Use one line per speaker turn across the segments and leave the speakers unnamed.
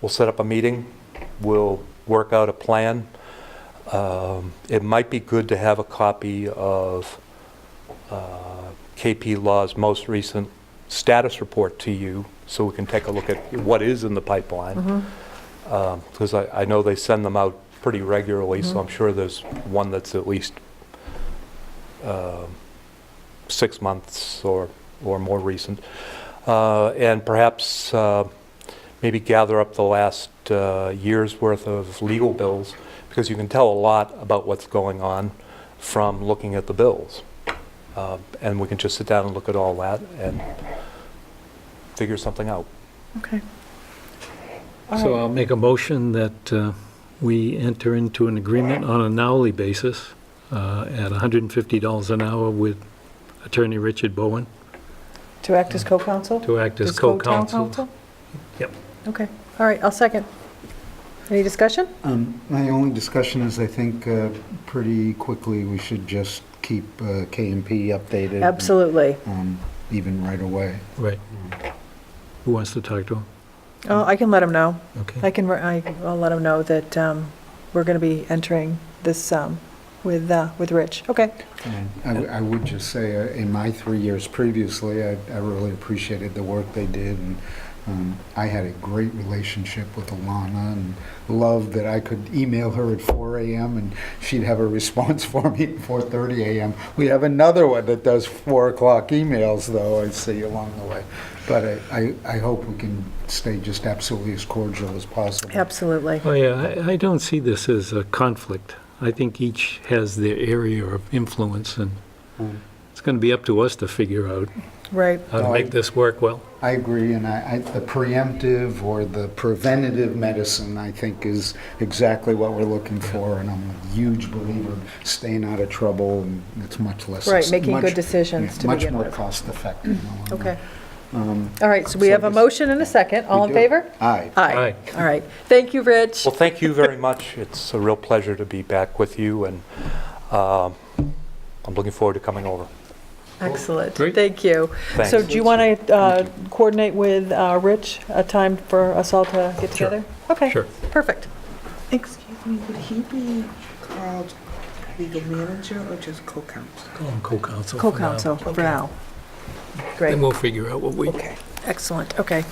We'll set up a meeting, we'll work out a plan. Um, It might be good to have a copy of uh, KP Law's most recent status report to you, so we can take a look at what is in the pipeline.
Mm-hmm.
Because Um, I I know they send them out pretty regularly, so I'm sure there's one that's at least um, six months or or more recent. Uh, And perhaps uh, maybe gather up the last uh, year's worth of legal bills, because you can tell a lot about what's going on from looking at the bills. Uh, And we can just sit down and look at all that and figure something out.
Okay. Uh-huh.
So I'll make a motion that uh, we enter into an agreement on an hourly basis uh, at $150 an hour with Attorney Richard Bowen
To act as co-counsel?
to act as
As co-town
co-counsel.
council?
Yep.
Okay, all right, I'll second. Any discussion?
Mm-hmm.
Um, My only discussion is, I think, uh, pretty quickly, we should just keep uh, K and P updated.
Absolutely.
um, Even right away.
Right. Who wants to talk to him?
Oh, I can let them know. I
Okay.
can, I- I'll let them know that um, we're going to be entering this um, with, uh, with Rich. Okay.
And I w- I would just say, uh, in my three years previously, I I really appreciated the work they did, and um, I had a great relationship with Alana, and loved that I could email her at 4 AM, and she'd have a response for me at 4:30 AM. We have another one that does 4 o'clock emails, though, I see along the way. But I- I I hope we can stay just absolutely as cordial as possible.
Absolutely.
Oh, yeah, I- I don't see this as a conflict. I think each has their area of influence, and
Mm.
it's going to be up to us to figure out
Right.
how to
No, I-
make this work well.
I agree, and I, I, the preemptive or the preventative medicine, I think, is exactly what we're looking for, and I'm a huge believer in staying out of trouble, and it's much less.
Right, making
much-
good decisions to
yeah,
begin
Much more
with. Mm-hmm.
cost-effective. in the long run.
Okay.
Um,
All right, so we
So
have a
this-
motion and a second. All
we
in
do-
favor?
Aye.
Aye. All right. Thank you, Rich.
Well, thank you very much. It's a real pleasure to be back with you, and um, I'm looking forward to coming over.
Excellent.
Great.
Thank you.
Thanks.
So do you want to coordinate with uh, Rich a time for us all to get
Sure.
together? Okay.
Sure.
Perfect.
Excuse me, would he be called legal manager or just co-counsel?
Call him co-counsel. for now.
Co-counsel for
Okay.
now. Great.
Then we'll figure out what we,
Okay.
Excellent, okay.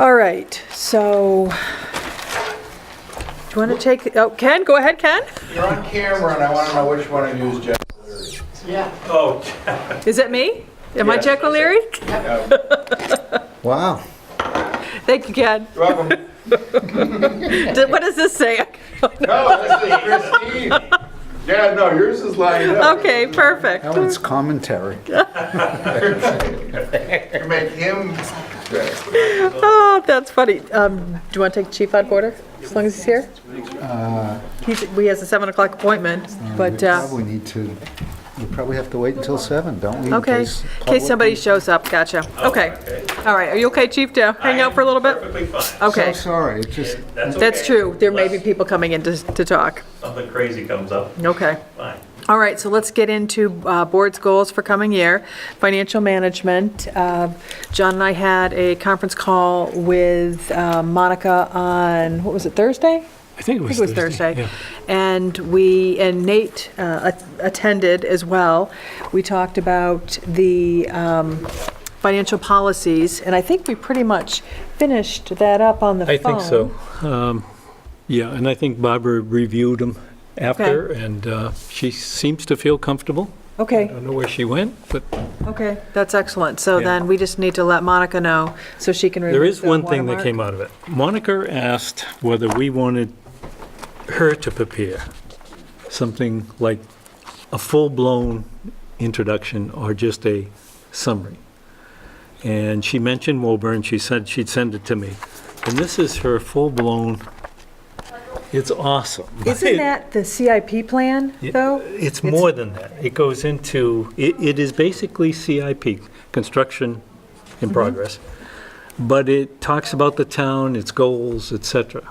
All right, so, do you want to take, oh, Ken, go ahead, Ken?
You're on camera, and I want to know which one to use, Jeff.
Is it me? Am I Jack O'Leary?
Wow.
Thank you, Ken.
You're welcome.
Did- What does this say?
No, this is Christine. Yeah, no, yours is lined up.
Okay, perfect.
That one's commentary.
You make him.
Oh, that's funny. Um, Do you want to take Chief out of order, as long as he's here? He's, we has a 7 o'clock appointment, but,
Uh, We
uh,
probably need to, we probably have to wait until seven, don't we? in
okay,
case
in
public-
case somebody shows up, gotcha. Okay, all right, are you okay, Chief, to hang out for a little bit?
Perfectly fine.
Okay,
So sorry, it's just,
That's okay.
that's true. There may be people coming in to to talk.
Something crazy comes up,
Okay.
fine.
All right, so let's get into uh, board's goals for coming year, financial management. Uh, John and I had a conference call with uh, Monica on, what was it, Thursday?
I think it
I
was
think it was Thursday. And we, and Nate uh, a- attended as well. We talked about the um, financial policies, and I think we pretty much finished that up on the phone.
I think so. Um, Yeah, and I think Barbara reviewed them after, and uh, she seems to feel comfortable. I
Okay.
don't know where she went, but
Okay, that's excellent. So
Yeah.
then we just need to let Monica know so she can remove
there is
the
one thing that
watermark.
came out of it. Monica asked whether we wanted her to prepare something like a full-blown introduction or just a summary. And she mentioned Woburn, she said she'd send it to me. And this is her full-blown, it's awesome.
Isn't that the CIP plan,
Yeah,
though?
It's more than that. It goes into, it, it is basically CIP, construction in progress. But it talks about the town, its goals, et cetera.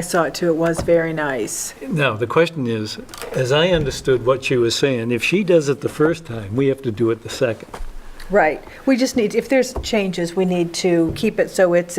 I saw it too. It was very nice.
Now, the question is, as I understood what she was saying, if she does it the first time, we have to do it the second.
Right. We just need, if there's changes, we need to keep it so it's